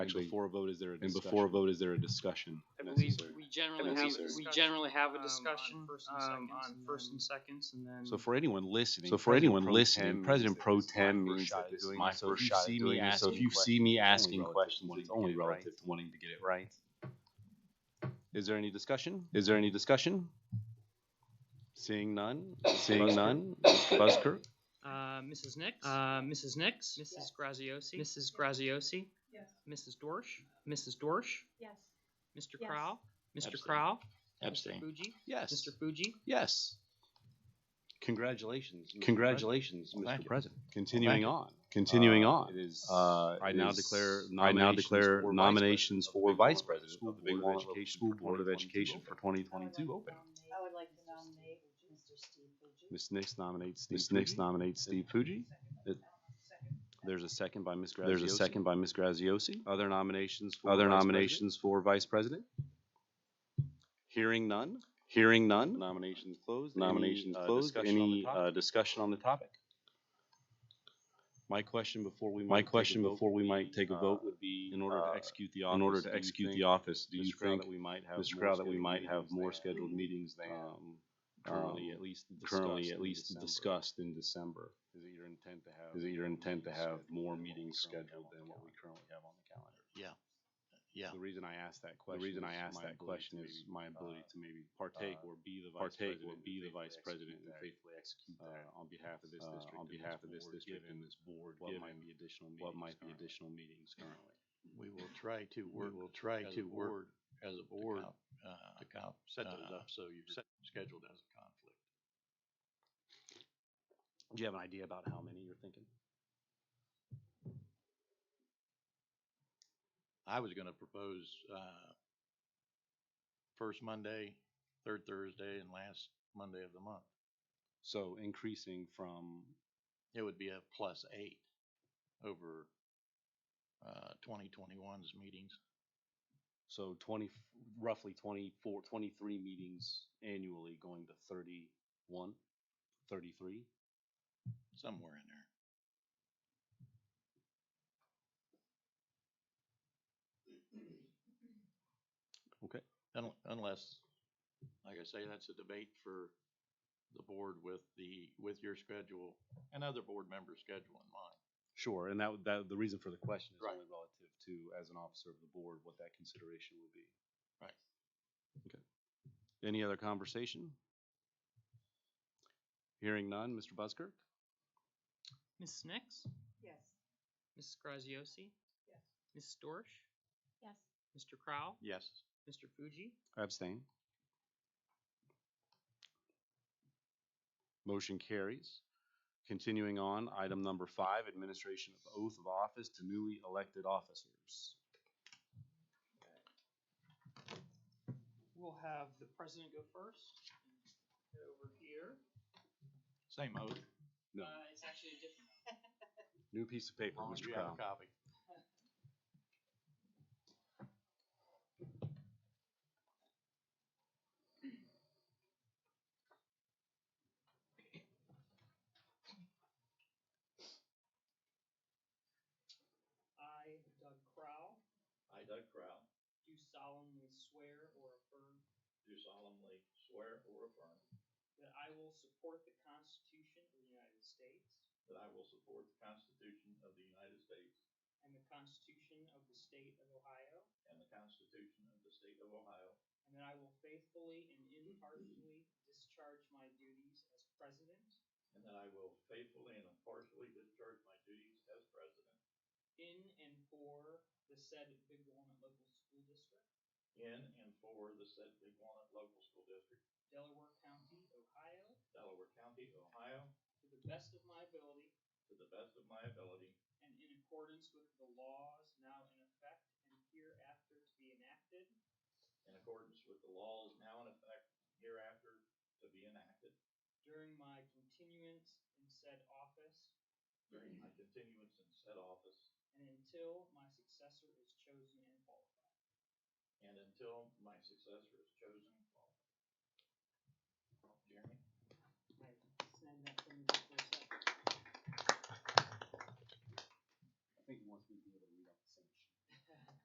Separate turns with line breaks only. Actually,
before a vote, is there a
and
discussion?
before a vote, is there a discussion
I believe
necessary?
we generally
And
have,
necessary.
we generally have a
Um, on
discussion,
first and
um,
seconds
on
and
first
then-
and seconds and then.
So for anyone listening.
So for
President
anyone
Pro Tem
listening,
means
President
that
Pro
this is my
Tem
first
means
shot
that
at
this is
doing
my
this. So if
first
you
shot at
see me
doing this. So if
asking
you see me asking
relative to
questions,
wanting
it's
to
only
get it right.
relative to wanting to get it right.
Right. Is there any discussion? Is there any discussion? Seeing none, seeing
Busker?
none, Mr. Busker?
Uh, Mrs. Nix. Uh, Mrs. Nix. Mrs. Graziosi. Mrs. Graziosi.
Yes.
Mrs. Dorsch. Mrs. Dorsch.
Yes.
Mr.
Yes.
Crow. Mr.
Abstain.
Crow. Mr.
Abstain.
Fuji.
Yes,
Mr. Fuji.
yes. Congratulations. Mr.
Congratulations,
President. Thank
Mr.
you.
President.
Continuing
Thank you.
on.
Continuing
Uh,
on.
It is.
Uh,
it
I now
is-
declare
I now declare
nominations for vice president
of the Big Walnut School
School Board of Education for 2022 open.
I would like to nominate Mr. Steve Fuji.
Ms. Nix nominates Steve
Ms. Nix
Fuji.
nominates Steve Fuji.
There's a second by Ms. Graziosi.
There's a second by Ms. Graziosi.
Other nominations for
Other
vice president?
nominations for vice president?
Hearing none,
Hearing none.
nominations closed. Any,
Nominations
uh,
closed.
discussion on the
Any
topic?
uh, discussion on the topic?
My question before we.
My
might take a
question
vote
before we
would
might
be,
take a
uh,
vote would be,
In order
uh,
to execute the office.
in order
do
to
you
execute the
think,
office,
Do you think, Mr. Mr.
Crowe,
Crowe, that we might have more scheduled meetings than
um,
currently at
least
least
currently at least
discussed?
discussed in December?
Is it your intent to have?
Is it your intent to have more meetings
scheduled
scheduled than what we currently have on the calendar?
Yeah.
The reason I asked that
The
question.
reason I
is
asked
my
that
ability
question
to
is
maybe,
my
uh,
ability to maybe
partake
uh,
or be the vice
partake
president.
or be the vice president and
faithfully
faithfully execute
uh,
that
on behalf of this
uh,
district.
on
and
behalf of this
board,
district
given
and this board,
What
given
might be additional meetings.
what might be
currently.
additional meetings currently.
Uh,
We will try to work. We will try
to work
As a board.
uh,
To count, set
uh,
those up so you're scheduled as a conflict.
Do you have an idea about how many you're thinking?
I was gonna propose, uh, first Monday, third Thursday, and last Monday of the month.
So increasing from,
It would be a plus eight over, uh, 2021's meetings.
so twenty, roughly twenty-four, twenty-three meetings annually going to thirty-one, thirty-three?
somewhere in there.
Okay.
Un- Unless, like I say, that's a debate for the board with the, with your schedule and other board members' schedule in mind.
Sure, and that, w- that, the reason for the question is
Right.
only relative to, as an officer of the board, what that consideration would be.
Right.
Okay. Any other conversation? Hearing none, Mr. Busker?
Mrs. Nix.
Yes.
Mrs. Graziosi.
Yes.
Mrs. Dorsch.
Yes.
Mr. Crow.
Yes.
Mr. Fuji.
Abstain. Motion carries. Continuing on, item number five, administration of oath of office to newly elected officers.
We'll have the president go first. Head over here. Uh,
Same oath.
No,
it's actually a different.
new piece of paper,
Long as
Mr.
you
Crowe.
have a copy.
I, Doug Crow,
I, Doug Crowe,
do solemnly swear or affirm
do solemnly swear or affirm
that I will support the Constitution of the United States
that I will support the Constitution of the United States
and the Constitution of the State of Ohio,
and the Constitution of the State of Ohio,
and that I will faithfully and impartially discharge my duties as president
and that I will faithfully and impartially discharge my duties as president
in and for the said Big Walnut Local School District,
in and for the said Big Walnut Local School District,
Delaware County, Ohio,
Delaware County, Ohio,
to the best of my ability
to the best of my ability,
and in accordance with the laws now in effect and hereafter to be enacted
in accordance with the laws now in effect hereafter to be enacted
during my continuance in said office
during my continuance in said office
and until my successor is chosen and qualified.
and until my successor is chosen and qualified. Jeremy?
Right, send that to me for a second.
I think he wants me to be able to